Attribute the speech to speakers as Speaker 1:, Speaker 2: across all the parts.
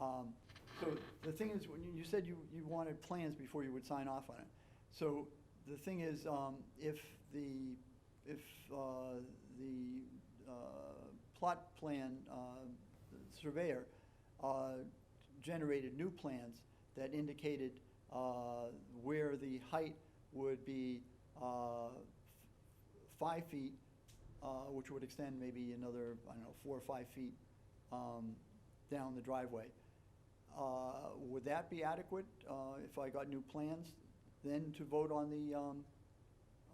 Speaker 1: Um, So the thing is, when you you said you, you wanted plans before you would sign off on it. So the thing is, um, if the, if uh, the uh, plot plan uh, surveyor uh, generated new plans that indicated uh, where the height would be uh, f- five feet, uh, which would extend maybe another, I don't know, four or five feet um, down the driveway. Uh, Would that be adequate uh, if I got new plans, then to vote on the, um,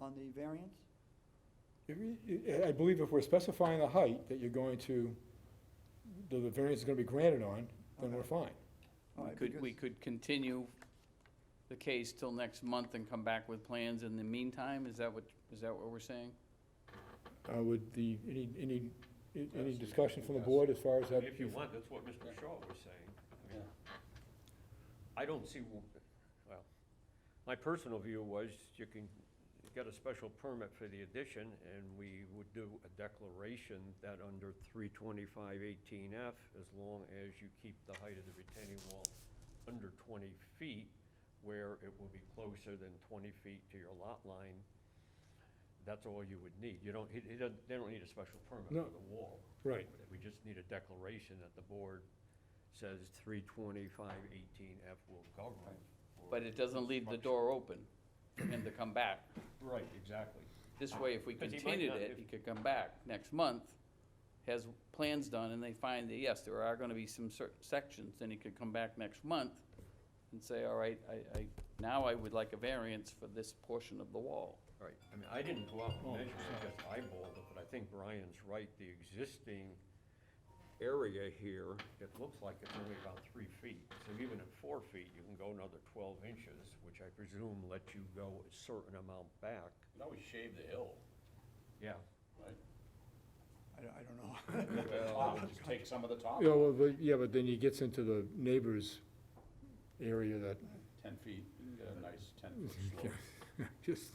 Speaker 1: on the variance?
Speaker 2: If we- I believe if we're specifying a height that you're going to, the the variance is gonna be granted on, then we're
Speaker 1: Okay.
Speaker 2: fine.
Speaker 1: All
Speaker 3: We
Speaker 1: right,
Speaker 3: could, we
Speaker 1: because-
Speaker 3: could continue the case till next month and come back with plans in the meantime? Is that what, is that what we're saying?
Speaker 2: Uh, would the, any, any, any discussion from the board as far as that?
Speaker 4: If you want, that's what Mr. Shaw was saying. I mean, I don't see, w- well, my personal view was you can get a special permit for the addition, and we would do a declaration that under three twenty-five eighteen F, as long as you keep the height of the retaining wall under twenty feet, where it will be closer than twenty feet to your lot line, that's all you would need. You don't, he, he doesn't, they don't need a special permit
Speaker 2: No.
Speaker 4: for the wall.
Speaker 2: Right.
Speaker 4: We just need a declaration that the board says three twenty-five eighteen F will govern. for
Speaker 3: But it doesn't leave the door open for him to come back.
Speaker 4: Right, exactly.
Speaker 3: This way, if we
Speaker 4: 'Cause he might
Speaker 3: continued
Speaker 4: not-
Speaker 3: it,
Speaker 4: if-
Speaker 3: he could come back next month, has plans done, and they find that, yes, there are gonna be some certain sections, then he could come back next month and say, all right, I, I, now I would like a variance for this portion of the wall.
Speaker 4: Right, I mean, I didn't go out and measure, I just eyeballed it, but I think Brian's right, the existing area here, it looks like it's only about three feet. So even at four feet, you can go another twelve inches, which I presume lets you go a certain amount back.
Speaker 5: You always shave the hill,
Speaker 4: Yeah,
Speaker 5: right?
Speaker 1: I don't- I don't know.
Speaker 5: Top, Just take some of the top,
Speaker 2: Yeah, well, but, yeah, but then he gets into the neighbor's area that,
Speaker 5: ten feet, you get a nice ten foot slope.
Speaker 2: just,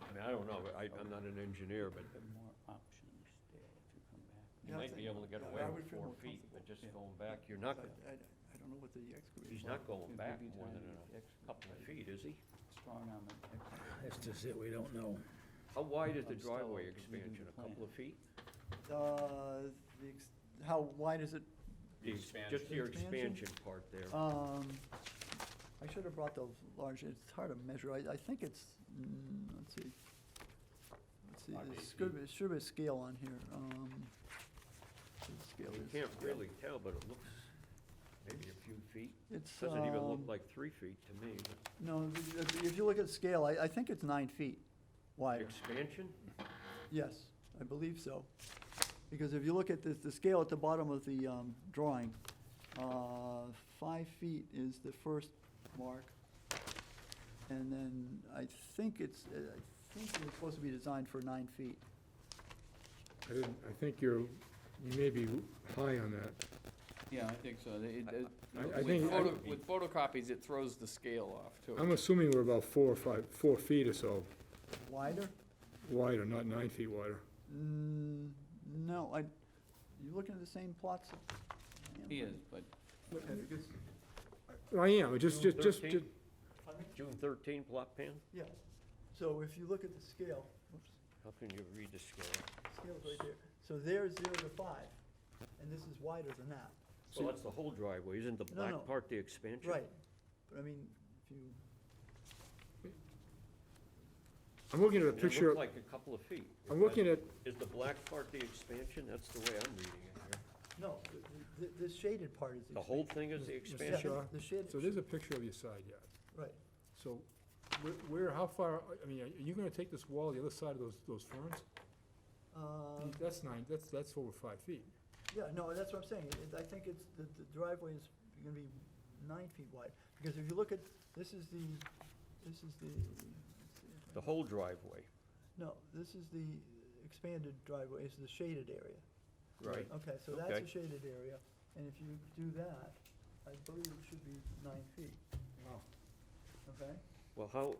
Speaker 4: I mean, I don't know, I, I'm not an engineer, but
Speaker 3: There are more options there if you come back.
Speaker 4: You
Speaker 1: Yeah, I
Speaker 4: might be
Speaker 1: think-
Speaker 4: able to get
Speaker 1: I-
Speaker 4: away
Speaker 1: I would
Speaker 4: with
Speaker 1: feel
Speaker 4: four
Speaker 1: more
Speaker 4: feet,
Speaker 1: comfortable,
Speaker 4: but just
Speaker 3: yeah.
Speaker 4: going back, you're not,
Speaker 1: I
Speaker 4: gonna-
Speaker 1: I- I don't know what the excavation.
Speaker 4: he's not going
Speaker 3: It would
Speaker 4: back
Speaker 3: be
Speaker 4: more than
Speaker 3: time to
Speaker 4: a
Speaker 3: ex-
Speaker 4: couple of feet, is he?
Speaker 3: Strong arm it,
Speaker 6: That's
Speaker 3: ex-
Speaker 6: just it, we don't know.
Speaker 4: How wide is the
Speaker 3: I'm still
Speaker 4: driveway
Speaker 3: reading the
Speaker 4: expansion, a couple
Speaker 3: plan.
Speaker 4: of feet?
Speaker 1: Uh, the ex- How wide is it?
Speaker 4: The ex- Just
Speaker 5: Expansion.
Speaker 4: your
Speaker 1: Expansion?
Speaker 4: expansion part there.
Speaker 1: Um, I should have brought the large, it's hard to measure, I, I think it's, mm, let's see. Let's see,
Speaker 5: Might be
Speaker 1: there's
Speaker 5: eight
Speaker 1: should be, should be a scale on here, um. what the scale
Speaker 4: You
Speaker 1: is.
Speaker 4: can't really tell, but it looks maybe a few feet.
Speaker 1: It's,
Speaker 4: Doesn't even look
Speaker 1: um,
Speaker 4: like three feet to me.
Speaker 1: No, if- if- if you look at scale, I, I think it's nine feet wide,
Speaker 4: Expansion?
Speaker 1: yes, I believe so. Because if you look at the, the scale at the bottom of the, um, drawing, uh, five feet is the first mark. And then I think it's, uh, I think it was supposed to be designed for nine feet.
Speaker 2: I didn't, I think you're, you may be high on that.
Speaker 3: Yeah, I think so. They- it- it-
Speaker 2: I- I
Speaker 3: with
Speaker 2: think-
Speaker 3: photo- With photocopies, it throws the scale off
Speaker 2: I'm
Speaker 3: too.
Speaker 2: assuming we're about four or five, four feet or so
Speaker 1: Wider?
Speaker 2: wider, not nine feet wider.
Speaker 1: Mm, no, I, you looking at the same plots? I am.
Speaker 3: He is, but
Speaker 1: Okay, because-
Speaker 2: I am, just, just, just,
Speaker 4: uh, Thirteen? June thirteen plot pan?
Speaker 1: Yeah, so if you look at the scale, whoops.
Speaker 4: How can you read the scale?
Speaker 1: Scale's right there. So there's zero to five, and this is wider than that.
Speaker 4: Well, that's the whole driveway. Isn't the
Speaker 1: No,
Speaker 4: black
Speaker 1: no.
Speaker 4: part the expansion?
Speaker 1: Right, but I mean, if you,
Speaker 2: I'm looking at a
Speaker 4: And It
Speaker 2: picture,
Speaker 4: looks like a couple of feet.
Speaker 2: I'm looking at,
Speaker 4: Is the black part the expansion? That's the way I'm reading it here.
Speaker 1: no, th- th- this shaded part is.
Speaker 4: The whole thing is the
Speaker 1: yeah,
Speaker 4: expansion?
Speaker 2: Shaw.
Speaker 1: The shaded,
Speaker 2: so there's a picture of your side yard.
Speaker 1: right.
Speaker 2: So where, where, how far, I mean, are you gonna take this wall the other side of those, those ferns?
Speaker 1: Uh,
Speaker 2: That's nine, that's, that's over five feet.
Speaker 1: Yeah, no, that's what I'm saying. It- I think it's, the the driveway is gonna be nine feet wide, because if you look at, this is the, this is the, let's see if I-
Speaker 4: The whole driveway,
Speaker 1: no, this is the expanded driveway, it's the shaded area.
Speaker 4: right?
Speaker 1: Okay, so that's a
Speaker 4: Okay.
Speaker 1: shaded area, and if you do that, I believe it should be nine feet, okay?
Speaker 4: Well, how,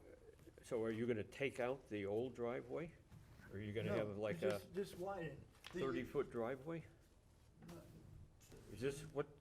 Speaker 4: so are you gonna take out the old driveway? Or are you gonna
Speaker 1: No,
Speaker 4: have
Speaker 1: you
Speaker 4: like a
Speaker 1: just- Just widen. The-
Speaker 4: thirty-foot driveway?
Speaker 1: no,
Speaker 4: Is this, what